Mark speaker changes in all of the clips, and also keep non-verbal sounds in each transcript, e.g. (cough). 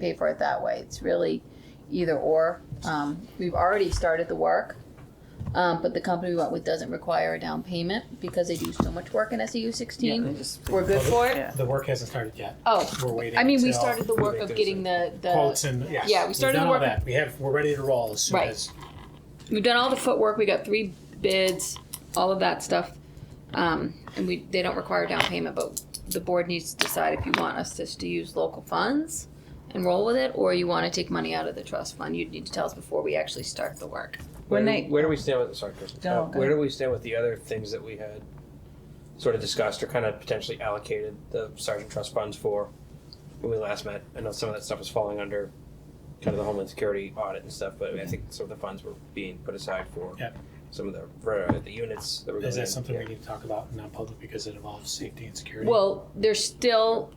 Speaker 1: pay for it that way. It's really either or. Um, we've already started the work, um, but the company we went with doesn't require a down payment because they do so much work in SEU
Speaker 2: Yeah, they
Speaker 1: sixteen.
Speaker 2: just-
Speaker 1: We're good for it.
Speaker 2: Yeah.
Speaker 3: The work hasn't started yet.
Speaker 1: Oh,
Speaker 3: We're waiting.
Speaker 1: I mean, we
Speaker 3: until
Speaker 1: started the work of
Speaker 3: there's
Speaker 1: getting the
Speaker 3: quotes
Speaker 1: the.
Speaker 3: and yes,
Speaker 1: yeah, we
Speaker 3: we've
Speaker 1: started
Speaker 3: done
Speaker 1: the
Speaker 3: all
Speaker 1: work-
Speaker 3: that. We have we're ready to roll as soon
Speaker 1: Right.
Speaker 3: as
Speaker 1: We've done all the footwork. We got three bids, all of that stuff, um, and we they don't require down payment. But the board needs to decide if you want us just to use local funds and roll with it, or you want to take money out of the trust fund. You'd need to tell us before we actually start the work.
Speaker 2: When
Speaker 4: where,
Speaker 2: they-
Speaker 4: do, where do we stand with sorry, Kristen,
Speaker 2: No,
Speaker 4: uh,
Speaker 2: go ahead.
Speaker 4: where do we stand with the other things that we had sort of discussed or kind of potentially allocated the sergeant trust funds for when we last met? I know some of that stuff was falling under kind of the homeland security audit and stuff, but I, mean, I think some of the funds were being put aside for
Speaker 3: Yep.
Speaker 4: some of the for, uh, the units that were
Speaker 3: is
Speaker 4: going in.
Speaker 3: that something
Speaker 4: Yeah.
Speaker 3: we need to talk about in non-public because it involves safety and security?
Speaker 1: Well, there's still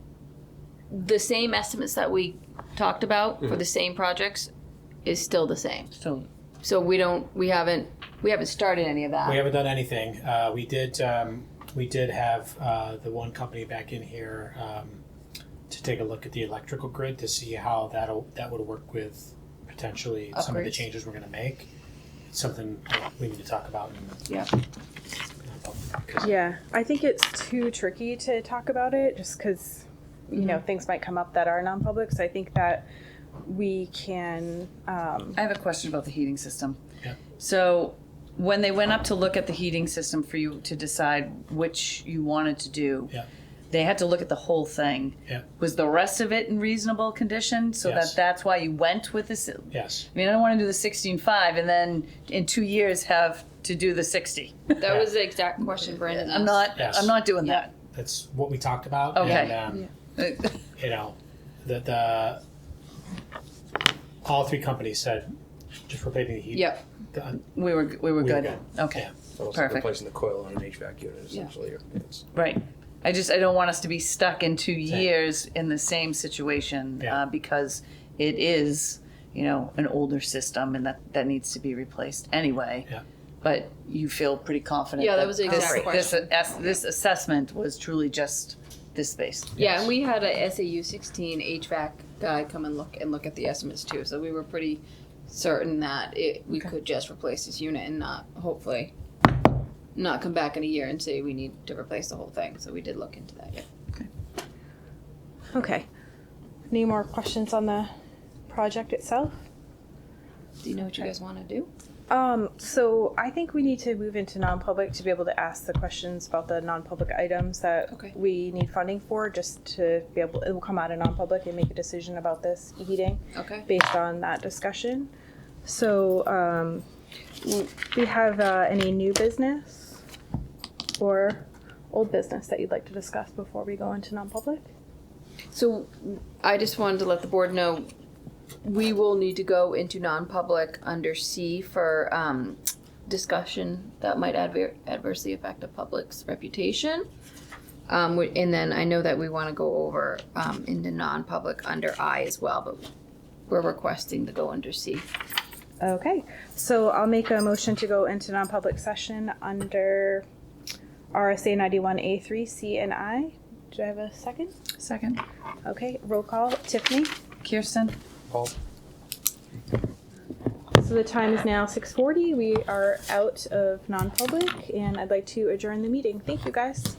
Speaker 1: the same estimates that we talked about for the same projects is still the same.
Speaker 2: So,
Speaker 1: So we don't we haven't we haven't started any of that.
Speaker 3: we haven't done anything. Uh, we did um, we did have uh, the one company back in here um, to take a look at the electrical grid to see how that that would work with potentially some of the
Speaker 1: Upgrades.
Speaker 3: changes we're going to make. It's something we need to talk about. In
Speaker 1: Yeah.
Speaker 3: non-public, 'cause
Speaker 5: Yeah, I think it's too tricky to talk about it just because, you know, things might come up that are non public. So I think that we can, um,
Speaker 2: I have a question about the heating system.
Speaker 3: Yeah.
Speaker 2: So, when they went up to look at the heating system for you to decide which you wanted to do,
Speaker 3: Yeah.
Speaker 2: they had to look at the whole thing.
Speaker 3: Yeah.
Speaker 2: Was the rest of it in reasonable condition? So
Speaker 3: Yes.
Speaker 2: that that's why you went with this. I
Speaker 3: Yes.
Speaker 2: mean, I don't want to do the sixteen five and then in two years have to do the sixty.
Speaker 1: That was the exact question Brandon
Speaker 2: I'm not.
Speaker 3: Yes.
Speaker 2: I'm not doing
Speaker 1: Yeah.
Speaker 3: That's what we talked about.
Speaker 2: Okay.
Speaker 3: And, um,
Speaker 2: that. (laughs)
Speaker 3: you know, the, the all three companies said just replacing the heat.
Speaker 1: Yep.
Speaker 3: The,
Speaker 2: we were. We were
Speaker 3: We were
Speaker 2: good.
Speaker 3: good.
Speaker 2: Okay.
Speaker 3: Yeah.
Speaker 4: Almost
Speaker 2: Perfect.
Speaker 4: like replacing the coil on an HVAC unit essentially. or It's,
Speaker 2: Right. I just I don't want us to be stuck in two
Speaker 3: Same.
Speaker 2: years in the same situation
Speaker 3: Yeah.
Speaker 2: uh, because it is you know an older system and that that needs to be replaced anyway.
Speaker 3: Yeah.
Speaker 2: But you feel pretty confident.
Speaker 1: Yeah, that was the
Speaker 2: this-
Speaker 1: exact
Speaker 2: this, ass- this assessment was truly just this space.
Speaker 1: Yeah, and we had a SAU sixteen HVAC guy come and look and look at the estimates too. So we were pretty certain that it, we could just replace this unit and not hopefully not come back in a year and say we need to replace the whole thing. So we did look into that. Yeah.
Speaker 5: okay. Any more questions on the project itself?
Speaker 1: Do you know what you guys want to do?
Speaker 5: Um, so I think we need to move into non-public to be able to ask the questions about the non-public items that
Speaker 1: Okay.
Speaker 5: we need funding for, just to be able, it will come out of non-public and make a decision about this heating
Speaker 1: Okay.
Speaker 5: based on that discussion. So, um, w- we have, uh, any new business or old business that you'd like to discuss before we go into non-public?
Speaker 1: So I just wanted to let the board know, we will need to go into non-public under C for, um, discussion that might adver- adversely affect the public's reputation. Um, we- and then I know that we wanna go over, um, into non-public under I as well, but we're requesting to go under C.
Speaker 5: Okay, so I'll make a motion to go into non-public session under RSA ninety-one A three, C and I. Do I have a second?
Speaker 2: Second,
Speaker 5: Okay, roll call, Tiffany.
Speaker 2: Kirsten.
Speaker 4: Paul,
Speaker 5: So the time is now six forty, we are out of non-public, and I'd like to adjourn the meeting. Thank you, guys.